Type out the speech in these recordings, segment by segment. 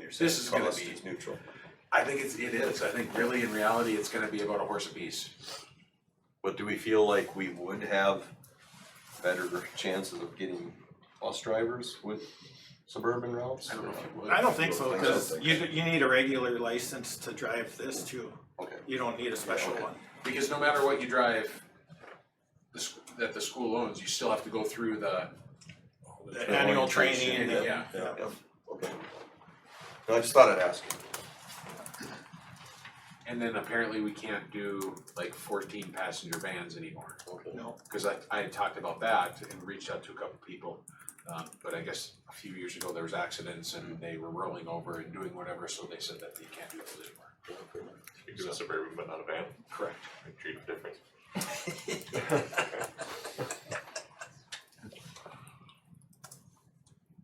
you're saying. This is gonna Cost be- is neutral. I think it's, it is, I think really in reality, it's gonna be about a horse apiece. But do we feel like we would have better chances of getting bus drivers with suburban routes? I don't know if you would. I don't think so, I don't cause think you, so. you need a regular license to drive this too. Okay. You don't need a special okay. one. Because no matter what you drive, the, sch- that the school owns, you still have to go through the, the annual training and, yeah. Yeah, yeah, okay. No, I just thought I'd ask. And then apparently we can't do like fourteen passenger vans anymore. Okay. No. Cause I, I had talked about that and reached out to a couple people. Um, but I guess a few years ago, there was accidents and they were rolling over and doing whatever, so they said that they can't do those anymore. You do a suburban but not a van, Correct. treat it different.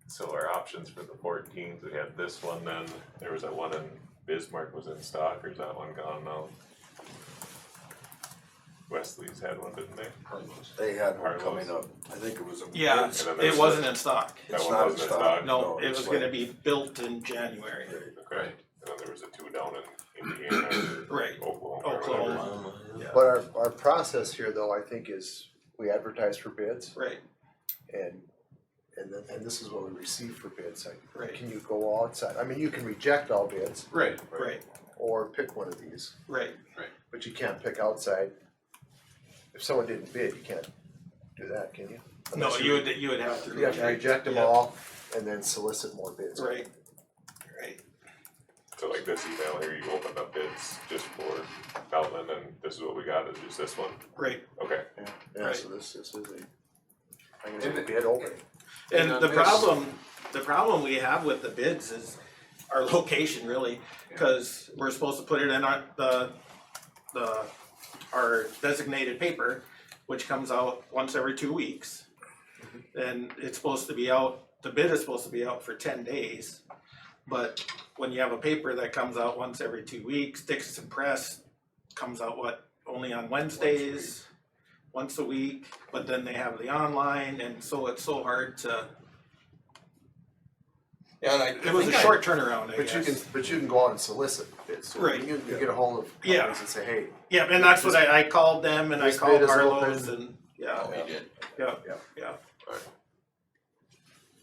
So our options for the fourteens, we had this one then, there was that one in Bismarck was in stock, or is that one gone now? Wesley's had one, didn't they? Carlos. They had one Harlow's. coming up, I think it was a. Yeah, it's- And then it there's wasn't in stock. That It's one not in wasn't in stock. stock. No, No, it it's was like- gonna be built in January. Okay, and then there was a two down in Indiana or Right, Oklahoma or whatever. Oklahoma, But our, our process here though, I think is we advertise for bids right, and, and then, and this is what we receive for bids. Like, Right. Can you go outside? I mean, you can reject all bids Right, right, or pick one of these, right. but you can't pick outside. If someone didn't bid, you can't do that, can you? No, Unless you would, you would have to You have to reject. reject them Yeah. all and then solicit more bids. Right, right, So like this email here, you opened up bids just for Beltland and this is what we got, is just this one, right. okay. Yeah, yeah, so this, this is a, I'm gonna And say the- bid opening. And uh, And the on this- problem, the problem we have with the bids is our location really, cause we're supposed to put it in our, the, the, our designated paper, which comes out once every two weeks. And it's supposed to be out, the bid is supposed to be out for ten days. But when you have a paper that comes out once every two weeks, Dixon Press comes out what, only on Wednesdays? Once a week, but then they have the online and so it's so hard to, Yeah, and I, I it was a think I- short turnaround, I But you can, guess. but you can go out and solicit bids. So Right. You can you get ahold of companies Yeah. and say, hey, Yeah, and that's what I, I called them and I This called bid is Harlow's open. and, yeah, Oh, he did. yeah, Yeah. yeah.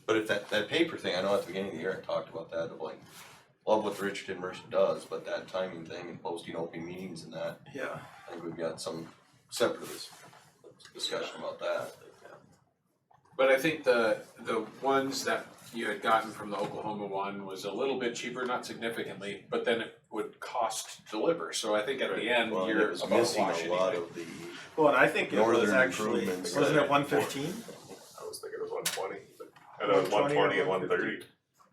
But if that, that paper thing, I know at the beginning of the year, I talked about that, of like, love what Richard Mercer does, but that timing thing and posting open meetings and that, Yeah, I think we've got some separate discussion about that. But I think the, the ones that you had gotten from the Oklahoma one was a little bit cheaper, not significantly, but then it would cost to deliver, so I think at the end, Well, it you're was about missing wash a lot anyway. of the, well, and I think it was Northern actually, improvements. wasn't it one fifteen? I was thinking it was one twenty, but I know one 120 twenty or and one thirty,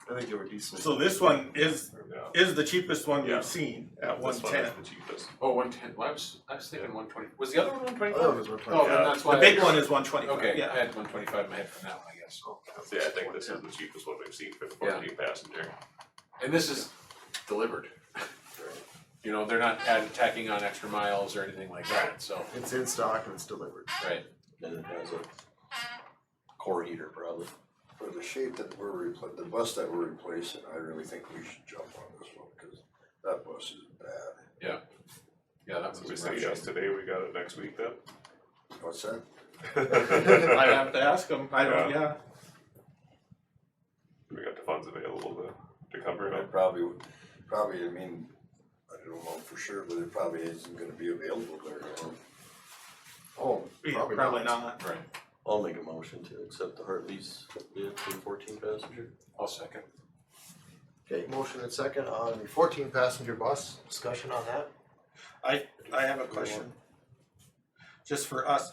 I think they were decent. So this one is, yeah. is the cheapest one Yeah. we've seen at one This one ten. is the cheapest. Oh, one ten, well, I was, I was thinking one twenty, was the other one one twenty oh, five? those were. Oh, Yeah. then that's The why. big one is one twenty-five, Okay, I yeah, had one twenty five in my head from that one, I guess. So yeah, I think this is the cheapest one we've seen for the Yeah. fourteen passenger. And this is delivered. You know, they're not adding, tacking on extra miles or anything like that, so, It's in stock and it's delivered. right, then it has a core heater probably. For the shape that we're repla- the bus that we're replacing, I really think we should jump on this one, cause that bus is bad. yeah, that So was. we say yes today, we got it next week then? What's that? I have to ask them, I don't, yeah, We got the funds available to, to cover it It up. probably, would- probably, I mean, I don't know for sure, but it probably isn't gonna be available very long. Oh, yeah, probably not, Right, I'll make a motion to accept the Hartley's bid for fourteen passenger. I'll second. Okay, motion and second on the fourteen passenger bus, discussion on that? I, I have a question. Just for us,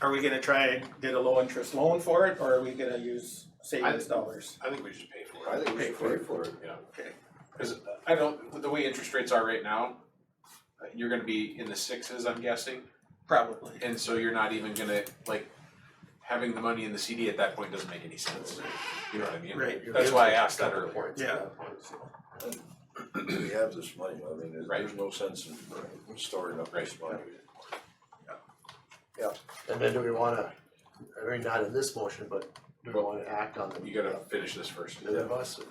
are we gonna try and get a low interest loan for it, or are we gonna use savings dollars? I think we should pay for it. I think we should pay for it. Yeah. Okay. Cause I don't, the way interest rates are right now, uh, you're gonna be in the sixes, I'm guessing, Probably. and so you're not even gonna, like, having the money in the CD at that point doesn't make any sense, you know what I mean? Right. That's why I asked that earlier. Yeah. We have this money, I mean, there- there's Right. no sense in in storing up this money. And then do we wanna, I mean, not in this motion, but do we wanna act on the You gotta finish this first. the bus? or-